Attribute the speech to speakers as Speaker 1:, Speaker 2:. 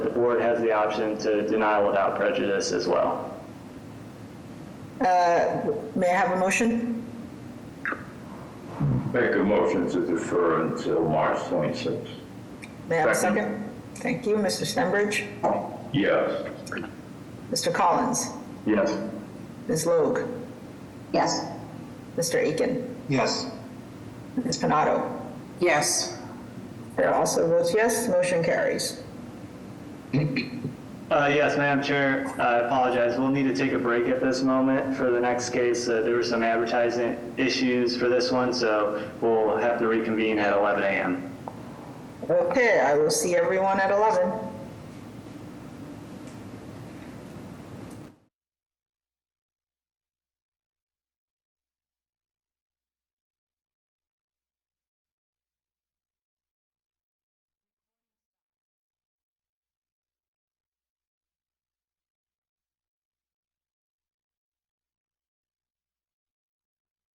Speaker 1: or it has the option to deny without prejudice as well.
Speaker 2: May I have a motion?
Speaker 3: Make a motion to defer until March 26th.
Speaker 2: May I have a
Speaker 3: Second.
Speaker 2: second? Thank you, Mr. Stenbridge.
Speaker 3: Yes.
Speaker 2: Mr. Collins,
Speaker 1: Yes.
Speaker 2: Ms. Logue,
Speaker 4: Yes.
Speaker 2: Mr. Aiken,
Speaker 5: Yes.
Speaker 2: Ms. Panado.
Speaker 4: Yes.
Speaker 2: Chair also votes yes, motion carries.
Speaker 1: Uh, Yes, Madam Chair, I apologize. We'll need to take a break at this moment for the next case. Uh, There were some advertising issues for this one, so we'll have to reconvene at 11 a.m.
Speaker 2: Okay, I will see everyone at 11.